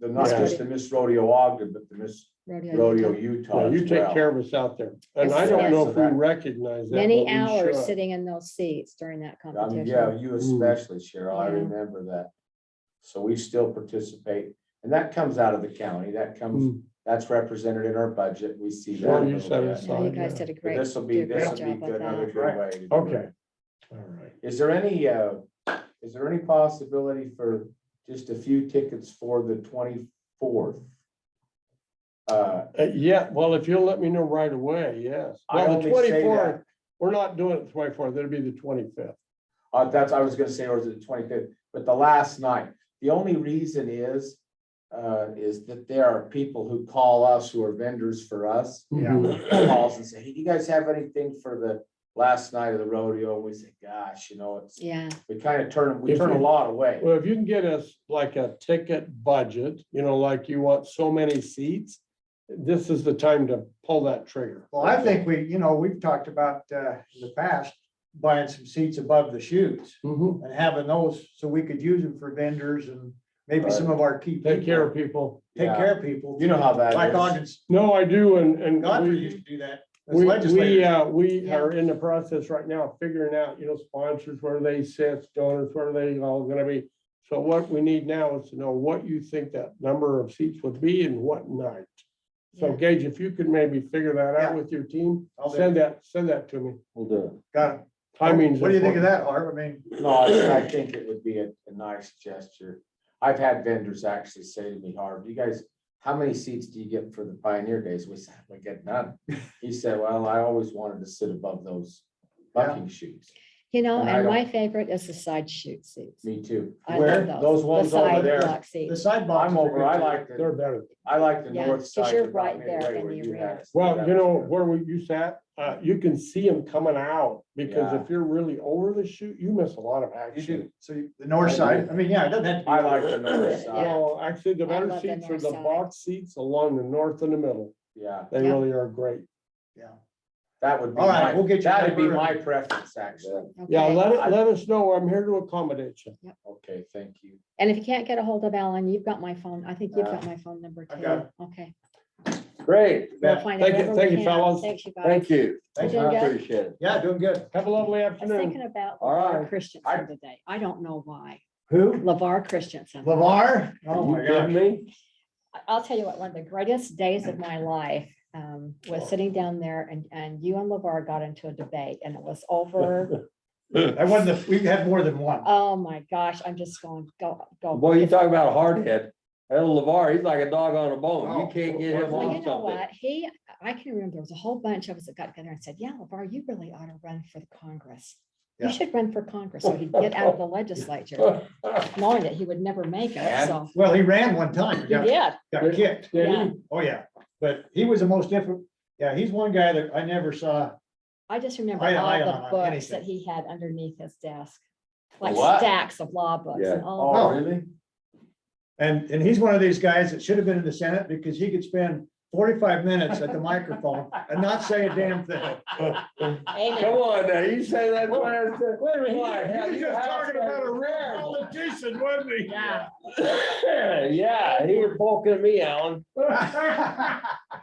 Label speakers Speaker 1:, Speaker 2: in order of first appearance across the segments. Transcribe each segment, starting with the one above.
Speaker 1: the, not
Speaker 2: Yeah.
Speaker 1: just the Miss Rodeo Ogden, but the Miss Rodeo
Speaker 3: Rodeo.
Speaker 1: Utah
Speaker 2: Yeah, you
Speaker 1: as
Speaker 2: take
Speaker 1: well.
Speaker 2: care of us out there. And
Speaker 3: Yes,
Speaker 2: I don't
Speaker 3: yes.
Speaker 2: know if we recognize that.
Speaker 3: Many
Speaker 2: but we
Speaker 3: hours
Speaker 2: should.
Speaker 3: sitting in those seats during that
Speaker 1: I mean, Um, yeah,
Speaker 3: competition.
Speaker 1: you especially, Cheryl, I
Speaker 3: Yeah.
Speaker 1: remember that. So we still participate, and that comes out of the county, that comes,
Speaker 2: Mm,
Speaker 1: that's represented in our budget, we see that.
Speaker 2: Sure,
Speaker 1: a
Speaker 2: you
Speaker 1: little
Speaker 2: said
Speaker 1: bit.
Speaker 2: it's
Speaker 3: Yeah, you
Speaker 2: fine,
Speaker 3: guys
Speaker 2: yeah.
Speaker 3: did a
Speaker 1: But
Speaker 3: great,
Speaker 1: This will be,
Speaker 3: did a
Speaker 1: this
Speaker 3: great
Speaker 1: will be
Speaker 3: job with
Speaker 1: good, another
Speaker 3: that.
Speaker 1: good way. to do it.
Speaker 2: Okay. All right.
Speaker 1: Is there any, uh, is there any possibility for just a few tickets for the twenty-fourth? Uh,
Speaker 2: Uh, yeah, well, if you'll let me know right away, yes.
Speaker 1: I
Speaker 2: Well, the
Speaker 1: only say
Speaker 2: twenty-fourth, we're not doing it the twenty-fourth, it'll be the twenty-fifth.
Speaker 1: Uh, that's, I was gonna say, or is it the twenty-fifth, but the last night, the only reason is, uh, is that there are people who call us, who are vendors for us. Calls and say, hey, do you guys have anything for the last night of the rodeo? And we say, gosh, you know, it's,
Speaker 3: Yeah,
Speaker 1: we kind of turn, we
Speaker 2: If
Speaker 1: turn a
Speaker 2: you-
Speaker 1: lot away.
Speaker 2: Well, if you can get us like a ticket budget, you know, like you want so many seats, this is the time to pull that trigger.
Speaker 4: Well, I think we, you know, we've talked about uh, in the past buying some seats above the chutes
Speaker 2: Mhm.
Speaker 4: and having those so we could use them for vendors and maybe some of our key.
Speaker 2: Take
Speaker 4: people.
Speaker 2: care of people.
Speaker 4: Take
Speaker 1: Yeah.
Speaker 4: care of people.
Speaker 1: You know how that
Speaker 4: Like
Speaker 1: is.
Speaker 4: Ogden,
Speaker 2: No, I do, and, and.
Speaker 4: Godfrey
Speaker 2: we-
Speaker 4: used to do that as
Speaker 2: We, we,
Speaker 4: legislator.
Speaker 2: uh, we
Speaker 3: Yeah.
Speaker 2: are in the process right now of figuring out, you know, sponsors, where they sit, donors, where they all gonna be. So what we need now is to know what you think that number of seats would be and what night. So
Speaker 3: Yeah.
Speaker 2: Gage, if you could maybe figure that out
Speaker 4: Yeah.
Speaker 2: with your team,
Speaker 4: I'll do
Speaker 2: send that, send that to me.
Speaker 1: We'll do
Speaker 4: Got it.
Speaker 2: Timing's.
Speaker 4: What do you think of
Speaker 2: important.
Speaker 4: that, Art? I mean,
Speaker 1: it. No, I, I think it would be a, a nice gesture. I've had vendors actually say to me, Harv, you guys, how many seats do you get for the Pioneer Days? We said, we get none. He said, well, I always wanted to sit above those bucking chutes.
Speaker 3: you know,
Speaker 1: And I
Speaker 3: and
Speaker 1: don't-
Speaker 3: my favorite is the side shoot seats.
Speaker 1: Me too.
Speaker 3: I
Speaker 1: Where?
Speaker 3: love
Speaker 1: Those ones
Speaker 3: The
Speaker 1: over
Speaker 3: side
Speaker 1: there.
Speaker 3: block
Speaker 4: the
Speaker 3: seats.
Speaker 4: side boxes
Speaker 1: I'm
Speaker 4: are
Speaker 1: over,
Speaker 4: good
Speaker 1: I
Speaker 4: too.
Speaker 1: like the,
Speaker 2: They're better.
Speaker 1: I like the
Speaker 3: Yeah,
Speaker 1: north
Speaker 3: 'cause
Speaker 1: side.
Speaker 3: you're
Speaker 1: of Mount
Speaker 3: right there
Speaker 1: Midway
Speaker 3: in
Speaker 1: where
Speaker 3: the
Speaker 1: you
Speaker 3: arena.
Speaker 1: had us.
Speaker 2: Well,
Speaker 1: That
Speaker 2: you
Speaker 1: was
Speaker 2: know,
Speaker 1: good.
Speaker 2: where we- you sat, uh, you can see them coming out, because
Speaker 1: Yeah.
Speaker 2: if you're really over the shoot, you miss a lot of action.
Speaker 4: So you- the north side, I mean, yeah, it doesn't have to be.
Speaker 1: I like the north side,
Speaker 2: Well, actually, the
Speaker 3: I
Speaker 2: better
Speaker 3: love the
Speaker 2: seats are
Speaker 3: north
Speaker 2: the
Speaker 3: side.
Speaker 2: box seats along the north and the middle.
Speaker 1: yeah,
Speaker 2: They
Speaker 3: Yeah.
Speaker 2: really are great.
Speaker 1: that would be
Speaker 4: All right,
Speaker 1: my,
Speaker 4: we'll get you
Speaker 1: that'd be
Speaker 4: number.
Speaker 1: my preference, actually.
Speaker 2: Yeah,
Speaker 3: Okay.
Speaker 2: let, it- let us know. I'm here to accommodate you.
Speaker 1: Okay, thank you.
Speaker 3: And if you can't get a hold of Alan, you've got my phone. I think you've
Speaker 1: Uh,
Speaker 3: got my phone number
Speaker 4: I
Speaker 3: too.
Speaker 4: got
Speaker 3: Okay.
Speaker 5: Great,
Speaker 3: We'll
Speaker 4: Yeah.
Speaker 3: find
Speaker 2: Thank
Speaker 3: out
Speaker 2: you-
Speaker 3: wherever
Speaker 2: thank
Speaker 3: we
Speaker 2: you,
Speaker 3: can.
Speaker 2: fellas.
Speaker 3: Thank you guys.
Speaker 5: thank you. I
Speaker 4: Thank
Speaker 3: you, guys.
Speaker 5: appreciate it.
Speaker 4: Yeah, doing good.
Speaker 2: Have a lovely
Speaker 3: I was
Speaker 2: afternoon.
Speaker 3: thinking about
Speaker 5: All
Speaker 3: LeVar
Speaker 5: right.
Speaker 3: Christensen today. I don't know why.
Speaker 4: Who?
Speaker 3: LeVar Christensen.
Speaker 4: Lavar? Oh,
Speaker 5: You
Speaker 4: my
Speaker 5: kidding
Speaker 4: God.
Speaker 5: me?
Speaker 3: I- I'll tell you what, one of the greatest days
Speaker 4: Mm.
Speaker 3: of my life um, was sitting down there and, and you and LeVar got into a debate and it was over.
Speaker 4: I won the, we had more than one.
Speaker 3: Oh my gosh, I'm just going, go, go.
Speaker 5: Boy, you talk about a hard head. That little LeVar, he's like a dog on a bone. You
Speaker 4: Oh,
Speaker 5: can't get him
Speaker 2: well,
Speaker 3: Well,
Speaker 5: on
Speaker 3: you know
Speaker 5: something.
Speaker 3: what? He, I can remember there was a whole bunch of us that got together and said, yeah, LeVar, you really ought to run for the Congress. You
Speaker 4: Yeah.
Speaker 3: should run for Congress. So he'd get out of the legislature, knowing that he would never make it.
Speaker 1: And-
Speaker 3: So
Speaker 4: Well, he ran one time.
Speaker 3: he
Speaker 4: and got-
Speaker 3: did.
Speaker 4: Got kicked.
Speaker 2: Did he?
Speaker 3: Yeah.
Speaker 4: Oh, yeah, but he was the most different, yeah, he's one guy that I never saw,
Speaker 3: I just remember
Speaker 4: I- I
Speaker 3: all
Speaker 4: don't
Speaker 3: the
Speaker 4: know
Speaker 3: books that
Speaker 4: anything.
Speaker 3: he had underneath his desk. Like
Speaker 1: What?
Speaker 3: stacks of law books and all.
Speaker 1: Oh,
Speaker 4: Oh.
Speaker 1: really?
Speaker 4: and, and he's one of these guys that should have been in the Senate because he could spend forty-five minutes at the microphone and not say a damn thing.
Speaker 5: Come on now, you say that last. Wait a
Speaker 4: He was just talking about a rare politician, wasn't he?
Speaker 3: Yeah.
Speaker 5: Yeah, he was poking me, Alan.
Speaker 4: All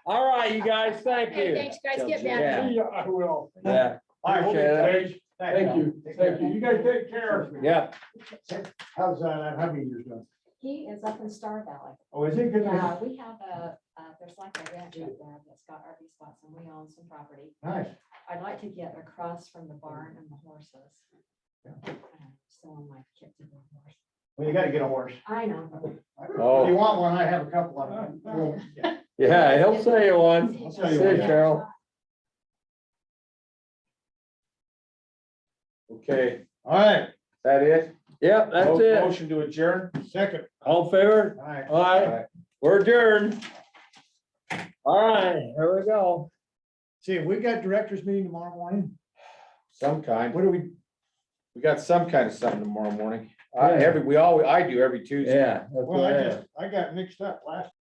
Speaker 5: All right, you guys, thank
Speaker 3: Hey,
Speaker 5: you.
Speaker 3: thanks, guys. Get back.
Speaker 5: Yeah,
Speaker 2: Yeah, I will.
Speaker 5: Yeah,
Speaker 4: right, we'll
Speaker 5: Appreciate
Speaker 4: get-
Speaker 2: Thank you, thank you. You guys take care.
Speaker 5: yeah.
Speaker 4: How's, uh, how many years done?
Speaker 3: He is up in Star Valley.
Speaker 4: Oh, is it good?
Speaker 3: Yeah, we have a, uh, there's like a ranch up there that's got RV spots and we own some property.
Speaker 4: Nice.
Speaker 3: I'd like to get across from the barn and the horses.
Speaker 4: Yeah.
Speaker 3: Uh, So I'm like, get to the horse.
Speaker 4: Well, you gotta get a horse.
Speaker 3: I know.
Speaker 5: Oh.
Speaker 4: If you want one, I have a couple of them.
Speaker 5: Yeah, he'll say it one.
Speaker 4: I'll
Speaker 5: See
Speaker 4: tell
Speaker 5: you,
Speaker 4: you what.
Speaker 5: Cheryl.
Speaker 1: Okay,
Speaker 4: All right,
Speaker 1: that it?
Speaker 5: Yep, that's
Speaker 1: Mo-
Speaker 5: it.
Speaker 1: Motion to adjourn?
Speaker 4: second.
Speaker 5: All in favor?
Speaker 4: All right.
Speaker 5: All right, we're adjourned. All right, here we go.
Speaker 4: See, we got directors meeting tomorrow morning.
Speaker 1: Some kind.
Speaker 4: What do we,
Speaker 1: We got some kind of something tomorrow morning.
Speaker 5: Yeah.
Speaker 1: I, every, we all, I do every Tuesday.
Speaker 5: Yeah. that's
Speaker 4: well,
Speaker 5: what
Speaker 4: I
Speaker 5: I am.
Speaker 4: just, I got mixed up last